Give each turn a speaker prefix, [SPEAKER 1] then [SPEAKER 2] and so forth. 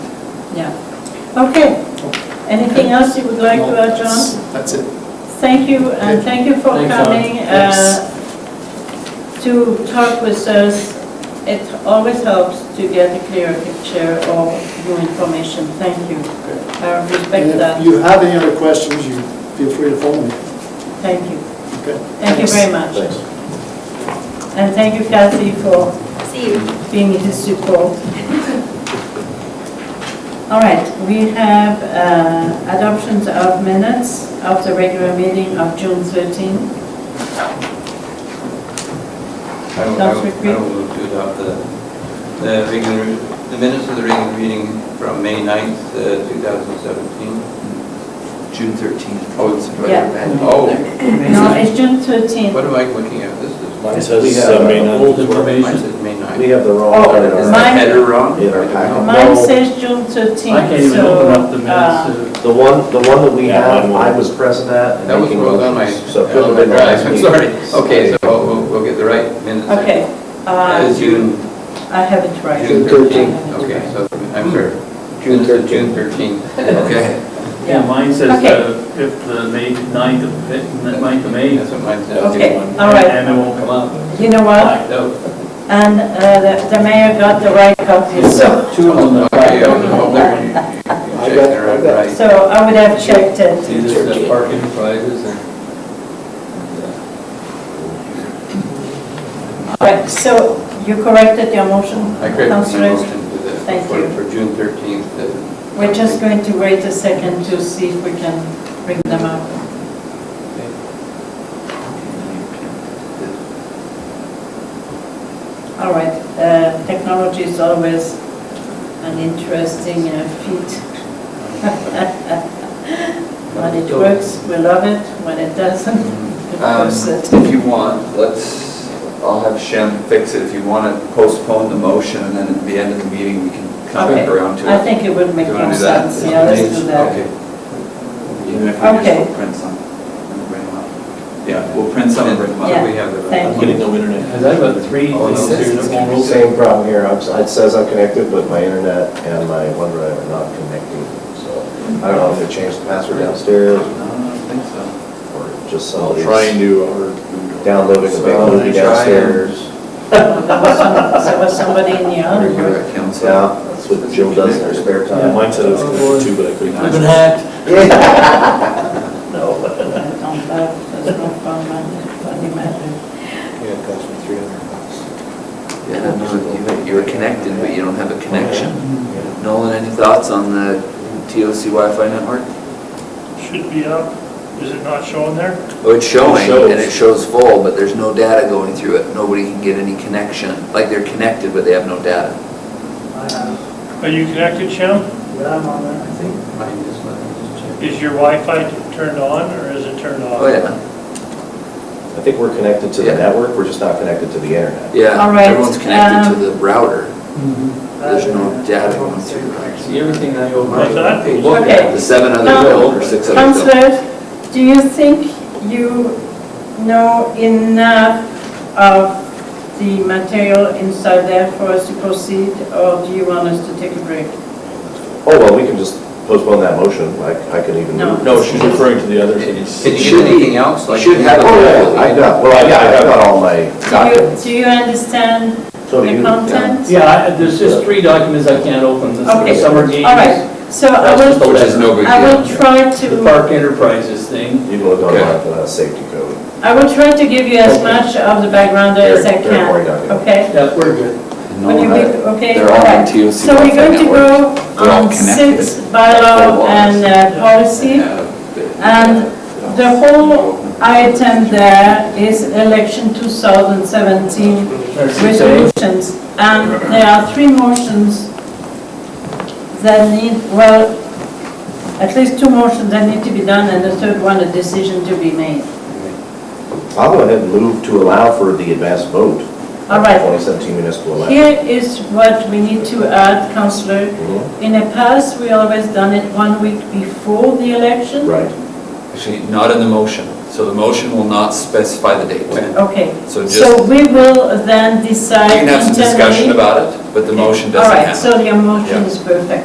[SPEAKER 1] Yeah. Okay. Anything else you would like to add, John?
[SPEAKER 2] That's it.
[SPEAKER 1] Thank you, and
[SPEAKER 2] Okay.
[SPEAKER 1] thank you for
[SPEAKER 3] Thanks, John.
[SPEAKER 1] coming uh, to talk with us. It always helps to get a clearer picture of new information. Thank you. I respect
[SPEAKER 2] And if
[SPEAKER 1] that.
[SPEAKER 2] you have any other questions, you feel free to phone me.
[SPEAKER 1] Thank you.
[SPEAKER 2] Okay.
[SPEAKER 1] Thank you very much. And thank you, Kathy, for
[SPEAKER 4] See you.
[SPEAKER 1] being his support. All right, we have uh, adoptions of minutes of the regular meeting of June 13.
[SPEAKER 3] I don't, I don't- I don't move to adopt the, uh, the regular, the minutes of the regular meeting from May 9th, uh, 2017.
[SPEAKER 5] June 13th.
[SPEAKER 3] Oh, it's,
[SPEAKER 1] Yeah.
[SPEAKER 3] oh,
[SPEAKER 1] No, it's June 13.
[SPEAKER 3] what am I looking at? This is,
[SPEAKER 6] Mine
[SPEAKER 5] It
[SPEAKER 6] says
[SPEAKER 5] says,
[SPEAKER 6] uh,
[SPEAKER 5] uh, May ninth
[SPEAKER 6] old
[SPEAKER 5] as well.
[SPEAKER 3] mine
[SPEAKER 6] information.
[SPEAKER 3] says May 9th.
[SPEAKER 5] We have the wrong.
[SPEAKER 1] Oh,
[SPEAKER 5] header.
[SPEAKER 3] Is the
[SPEAKER 1] Mine-
[SPEAKER 3] header wrong?
[SPEAKER 5] Yeah, our
[SPEAKER 3] I don't know.
[SPEAKER 1] Mine
[SPEAKER 5] No.
[SPEAKER 1] says June 13.
[SPEAKER 6] I can't even
[SPEAKER 1] so,
[SPEAKER 6] open up the
[SPEAKER 1] uh,
[SPEAKER 6] minutes
[SPEAKER 5] The one, the one that we
[SPEAKER 6] Yeah,
[SPEAKER 5] have,
[SPEAKER 6] mine
[SPEAKER 5] I
[SPEAKER 6] will.
[SPEAKER 5] was present at. and
[SPEAKER 3] That was
[SPEAKER 5] making
[SPEAKER 3] what was on my,
[SPEAKER 5] motions, So it could
[SPEAKER 3] on my
[SPEAKER 5] have been
[SPEAKER 3] drive,
[SPEAKER 5] last
[SPEAKER 3] I'm
[SPEAKER 5] week.
[SPEAKER 3] sorry. Okay, so we'll, we'll- we'll get the right minutes.
[SPEAKER 1] Okay,
[SPEAKER 3] That is
[SPEAKER 1] uh,
[SPEAKER 3] June,
[SPEAKER 1] I have it right.
[SPEAKER 3] June
[SPEAKER 5] June 13.
[SPEAKER 3] 13th, okay, so, I'm sorry.
[SPEAKER 5] June
[SPEAKER 3] This is June 13th, okay.
[SPEAKER 6] to, yeah, mine says
[SPEAKER 1] Okay.
[SPEAKER 6] uh, if the May, 9th of, May- 9th of May.
[SPEAKER 3] That's what mine says.
[SPEAKER 1] Okay, all
[SPEAKER 6] And
[SPEAKER 1] right.
[SPEAKER 6] it won't come up.
[SPEAKER 1] You know what?
[SPEAKER 3] No,
[SPEAKER 1] And uh, the the mayor got the right copy, so,
[SPEAKER 6] Two on the back.
[SPEAKER 3] Okay, I'll- I'll let you- you check it out, right.
[SPEAKER 1] so I would have checked it.
[SPEAKER 3] See, this
[SPEAKER 7] uh,
[SPEAKER 3] is the parking prices and
[SPEAKER 1] All right, so you corrected your motion,
[SPEAKER 7] uh,
[SPEAKER 3] I created my
[SPEAKER 1] Councillor?
[SPEAKER 3] motion to the,
[SPEAKER 1] Thank
[SPEAKER 3] for-
[SPEAKER 1] you.
[SPEAKER 3] for June 13th. that-
[SPEAKER 1] We're just going to wait a second to see if we can bring them up. All right, uh, technology is always an interesting uh, feat. When it works, we love it, when it doesn't, we
[SPEAKER 7] Um,
[SPEAKER 1] curse it.
[SPEAKER 7] If you want, let's, I'll have Shem fix it. If you want to postpone the motion and then at the end of the meeting, we can come
[SPEAKER 1] Okay,
[SPEAKER 7] back around to it.
[SPEAKER 1] I think it would make
[SPEAKER 7] Do you wanna do
[SPEAKER 1] more
[SPEAKER 7] that?
[SPEAKER 1] sense, yeah, let's do that.
[SPEAKER 7] Okay. Even if we
[SPEAKER 1] Okay.
[SPEAKER 7] just will print some and bring them up. Yeah, we'll print some and bring them up.
[SPEAKER 1] Yeah.
[SPEAKER 3] We have the.
[SPEAKER 5] I'm
[SPEAKER 1] Thank
[SPEAKER 5] getting no internet.
[SPEAKER 6] Because I've got three
[SPEAKER 3] Oh, no,
[SPEAKER 6] things here that won't open.
[SPEAKER 5] Same problem here, I'm, it says I'm connected, but my internet and my OneDrive are not connecting, so I don't know if they changed the password downstairs
[SPEAKER 7] No, I don't think so.
[SPEAKER 5] or just
[SPEAKER 8] I'll
[SPEAKER 5] somebody's
[SPEAKER 8] try and do our.
[SPEAKER 5] downloading a big
[SPEAKER 7] Well,
[SPEAKER 5] movie
[SPEAKER 7] try and-
[SPEAKER 5] downstairs.
[SPEAKER 1] There was some- there was somebody in the
[SPEAKER 7] Are
[SPEAKER 1] audience.
[SPEAKER 7] you at council?
[SPEAKER 5] Yeah, that's what Jill does in her spare
[SPEAKER 6] Yeah,
[SPEAKER 5] time.
[SPEAKER 8] Mine said it
[SPEAKER 1] Oh,
[SPEAKER 8] was connected too, but I couldn't.
[SPEAKER 6] I've been hacked.
[SPEAKER 5] No.
[SPEAKER 1] I don't have, there's no problem, I
[SPEAKER 2] Yeah, it cost me 300 bucks.
[SPEAKER 9] Yeah, you- you were connected, but you don't have a connection. Nolan, any thoughts on the TOC Wi-Fi network?
[SPEAKER 10] Should be up. Is it not showing there?
[SPEAKER 9] Oh, it's showing,
[SPEAKER 8] shows.
[SPEAKER 9] and it shows full, but there's no data going through it. Nobody can get any connection. Like, they're connected, but they have no data.
[SPEAKER 10] Are you connected, Shem?
[SPEAKER 3] I think mine is, let me just check.
[SPEAKER 10] Is your Wi-Fi t- turned on or is it turned off?
[SPEAKER 9] Oh, yeah,
[SPEAKER 5] I think we're connected to the
[SPEAKER 9] Yeah.
[SPEAKER 5] network, we're just not connected to the internet.
[SPEAKER 9] yeah.
[SPEAKER 1] All right,
[SPEAKER 9] Everyone's connected to
[SPEAKER 1] um,
[SPEAKER 9] the router. There's no data going through it.
[SPEAKER 3] See, everything I open.
[SPEAKER 10] What's that?
[SPEAKER 3] Look at
[SPEAKER 1] Okay.
[SPEAKER 9] The seven other
[SPEAKER 1] Now,
[SPEAKER 9] bill, or six
[SPEAKER 1] don't
[SPEAKER 9] other bill.
[SPEAKER 1] Counselor, do you think you know enough of the material inside there for us to proceed, or do you want us to take a break?
[SPEAKER 5] Oh, well, we can just postpone that motion, I, I could even.
[SPEAKER 1] No.
[SPEAKER 5] move.
[SPEAKER 8] No, she's referring to the other
[SPEAKER 3] it. Can
[SPEAKER 8] things.
[SPEAKER 9] It
[SPEAKER 3] you
[SPEAKER 9] should
[SPEAKER 3] get
[SPEAKER 9] be-
[SPEAKER 3] anything else?
[SPEAKER 9] You
[SPEAKER 3] like-
[SPEAKER 9] should have
[SPEAKER 5] Oh,
[SPEAKER 9] a
[SPEAKER 5] yeah, I got, well, I I got all my
[SPEAKER 1] Do you,
[SPEAKER 5] documents.
[SPEAKER 1] do you understand
[SPEAKER 5] So do
[SPEAKER 1] the
[SPEAKER 5] you.
[SPEAKER 1] content?
[SPEAKER 6] Yeah, I- there's just three documents I can't open. This is
[SPEAKER 1] Okay.
[SPEAKER 6] the summer games.
[SPEAKER 1] All right, so I
[SPEAKER 6] That's just
[SPEAKER 1] will,
[SPEAKER 6] the
[SPEAKER 7] Which is no big
[SPEAKER 1] I will
[SPEAKER 7] deal.
[SPEAKER 1] try
[SPEAKER 6] The
[SPEAKER 1] to,
[SPEAKER 6] Park Enterprises thing.
[SPEAKER 5] You can look online for that safety code.
[SPEAKER 1] I will try to give you as much of the background as I
[SPEAKER 5] They're- they're
[SPEAKER 1] can,
[SPEAKER 5] worried on you.
[SPEAKER 1] okay?
[SPEAKER 6] Yeah, we're good.
[SPEAKER 7] No,
[SPEAKER 1] Would you be-
[SPEAKER 7] that-
[SPEAKER 1] okay,
[SPEAKER 7] They're all
[SPEAKER 1] all
[SPEAKER 7] on
[SPEAKER 1] right.
[SPEAKER 7] TOC.
[SPEAKER 1] So we're going to go
[SPEAKER 7] They're all
[SPEAKER 1] on
[SPEAKER 7] connected.
[SPEAKER 1] six bylaw and uh, policy. And the whole item there is election 2017
[SPEAKER 6] That's it.
[SPEAKER 1] resolutions. And there are three motions that need, well, at least two motions that need to be done and the third one, a decision to be made.
[SPEAKER 5] I'll go ahead and move to allow for the advanced vote.
[SPEAKER 1] All right.
[SPEAKER 5] 2017 municipal election.
[SPEAKER 1] Here is what we need to add, Councillor.
[SPEAKER 5] Mhm.
[SPEAKER 1] In the past, we always done it one week before the election.
[SPEAKER 5] Right.
[SPEAKER 7] Actually, not in the motion. So the motion will not specify the date.
[SPEAKER 1] Okay.
[SPEAKER 7] So just,
[SPEAKER 1] So
[SPEAKER 7] you
[SPEAKER 1] we will then decide
[SPEAKER 7] can have some discussion
[SPEAKER 1] internally.
[SPEAKER 7] about it, but the motion
[SPEAKER 1] All
[SPEAKER 7] doesn't
[SPEAKER 1] right,
[SPEAKER 7] have.
[SPEAKER 1] so your motion
[SPEAKER 7] Yeah.
[SPEAKER 1] is perfect.